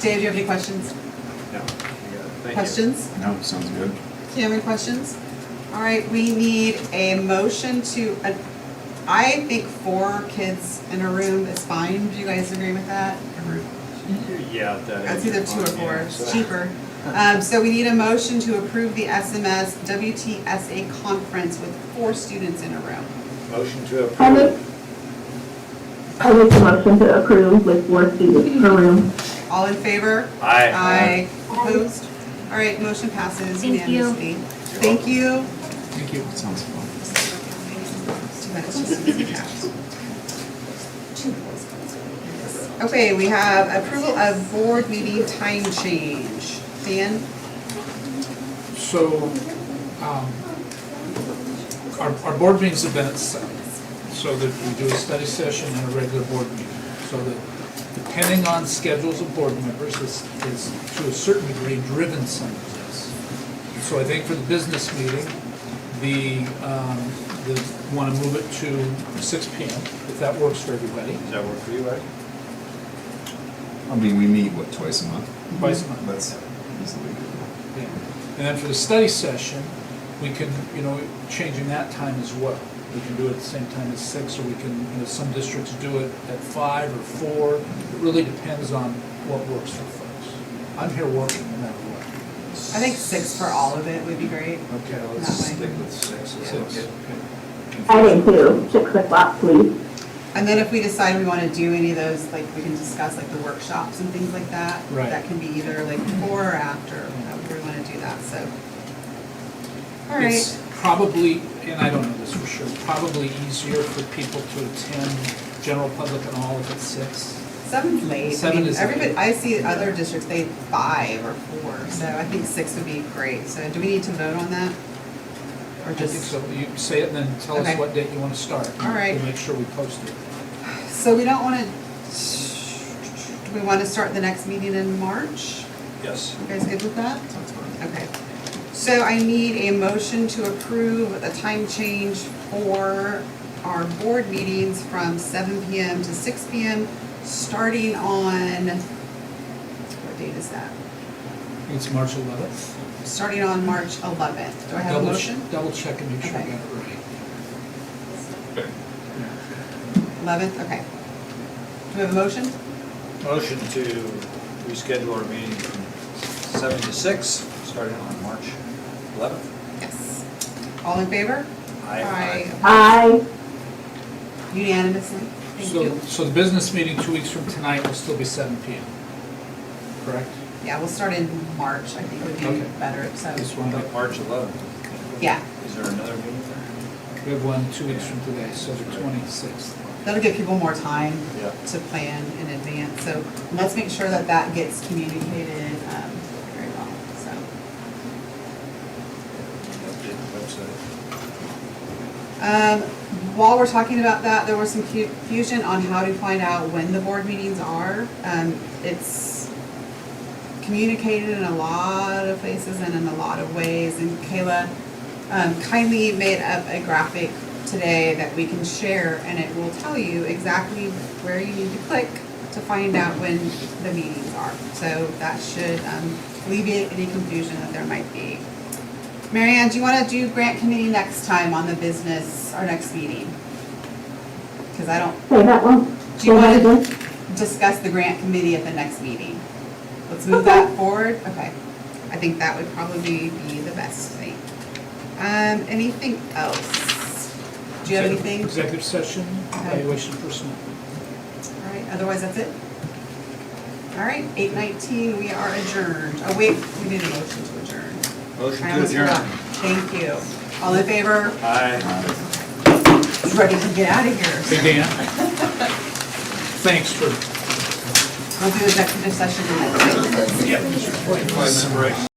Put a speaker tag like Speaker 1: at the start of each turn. Speaker 1: Dave, do you have any questions?
Speaker 2: No, you got it. Thank you.
Speaker 1: Questions?
Speaker 3: No, sounds good.
Speaker 1: Cameron, questions? All right, we need a motion to, ad- I think four kids in a room is fine. Do you guys agree with that?
Speaker 2: Yeah. that-
Speaker 1: It's either two or four,
Speaker 2: Yeah.
Speaker 1: it's cheaper. Um, so we need a motion to approve the SMS WTSA conference with four students in a room.
Speaker 2: Motion to
Speaker 4: I make,
Speaker 2: approve.
Speaker 4: I make the motion to approve with four students per room.
Speaker 1: All in favor?
Speaker 2: Aye.
Speaker 1: Aye. Opposed? All right, motion passes
Speaker 5: Thank you.
Speaker 1: unanimously. Thank you.
Speaker 3: Thank you. Sounds fun.
Speaker 1: It's too bad it's just easy cash. Okay, we have approval of board meeting time change. Dan?
Speaker 6: So, um, our, our board meetings have been at seven, so that we do a study session and a regular board meeting. So that depending on schedules of board members, this is to a certain degree driven some of this. So I think for the business meeting, the, um, the, wanna move it to six P M, if that works for everybody,
Speaker 2: Does that work for you, Ed?
Speaker 3: I mean, we meet, what, twice a month?
Speaker 6: vice month.
Speaker 3: That's easily doable.
Speaker 6: Yeah. And then for the study session, we can, you know, changing that time as well. We can do it at the same time as six, or we can, you know, some districts do it at five or four. It really depends on what works for folks. I'm here working no matter what.
Speaker 1: I think six for all of it would be great.
Speaker 6: Okay,
Speaker 1: let's That way.
Speaker 2: Stick with six. if that's
Speaker 6: Six.
Speaker 2: okay.
Speaker 4: I think too, six o'clock, please.
Speaker 1: And then if we decide we want to do any of those, like, we can discuss like the workshops and things like that.
Speaker 6: Right.
Speaker 1: That can be either like before or after, however we want to do that, so. All
Speaker 6: It's
Speaker 1: right,
Speaker 6: probably, and I don't know this for sure, probably easier for people to attend general public and all if it's six.
Speaker 1: seven's late. I
Speaker 6: Seven
Speaker 1: mean,
Speaker 6: is
Speaker 1: everybody,
Speaker 6: late.
Speaker 1: I see other districts, they have five or four, so I think six would be great. So do we need to vote on that? Or
Speaker 6: I think
Speaker 1: just?
Speaker 6: so. You say it and then tell
Speaker 1: Okay.
Speaker 6: us what date you want to start.
Speaker 1: All right.
Speaker 6: We'll make sure we post it.
Speaker 1: So we don't want to, do we want to start the next meeting in March?
Speaker 2: Yes.
Speaker 1: You guys good with that?
Speaker 3: Sounds fun.
Speaker 1: Okay. So I need a motion to approve a time change for our board meetings from seven PM to six PM, starting on, what date is that?
Speaker 6: It's March 11th.
Speaker 1: Starting on March eleventh. Do I have a
Speaker 6: Double-
Speaker 1: motion?
Speaker 6: Double check and make sure I
Speaker 1: Okay.
Speaker 6: got it right.
Speaker 1: Eleventh, okay. Do we have a motion?
Speaker 2: Motion to reschedule our meeting from seven to six, starting on March 11th.
Speaker 1: Yes. All in favor?
Speaker 2: Aye.
Speaker 4: I,
Speaker 1: Unanimously. Thank
Speaker 6: So,
Speaker 1: you.
Speaker 6: so the business meeting two weeks from tonight will still be seven P M. Correct?
Speaker 1: Yeah, we'll start in March, I think would
Speaker 6: Okay.
Speaker 1: be better, so,
Speaker 6: This
Speaker 2: I
Speaker 6: one,
Speaker 2: think March 11th.
Speaker 1: yeah.
Speaker 2: Is there another meeting there?
Speaker 6: we have one two weeks from today, so the twenty-sixth.
Speaker 1: That'll give people more time
Speaker 2: Yeah.
Speaker 1: to plan in advance, so let's make sure that that gets communicated um, very well, so.
Speaker 2: Update the website.
Speaker 1: Um, While we're talking about that, there was some confusion on how to find out when the board meetings are. Um, It's communicated in a lot of places and in a lot of ways, and Kayla um, kindly made up a graphic today that we can share, and it will tell you exactly where you need to click to find out when the meetings are. So that should um, alleviate any confusion that there might be. Marianne, do you want to do grant committee next time on the business, our next meeting? Because I don't,
Speaker 4: say that one.
Speaker 1: do you
Speaker 4: Say that
Speaker 1: want
Speaker 4: again.
Speaker 1: to discuss the grant committee at the next meeting? Let's move that forward, okay. I think that would probably be the best thing. Um, anything else? Do you have anything?
Speaker 6: Executive session, evaluation of personnel.
Speaker 1: All right, otherwise that's it? All right, eight nineteen, we are adjourned. Oh, wait, we need a motion to adjourn.
Speaker 2: Motion
Speaker 1: I
Speaker 2: to
Speaker 1: almost forgot.
Speaker 2: adjourn.
Speaker 1: Thank you. All in favor?
Speaker 2: Aye.
Speaker 3: Uh,
Speaker 1: ready to get out of here.
Speaker 6: Hey, Dan. Thanks for.
Speaker 1: We'll do executive session in a minute.
Speaker 6: Yeah.
Speaker 2: Five-minute break.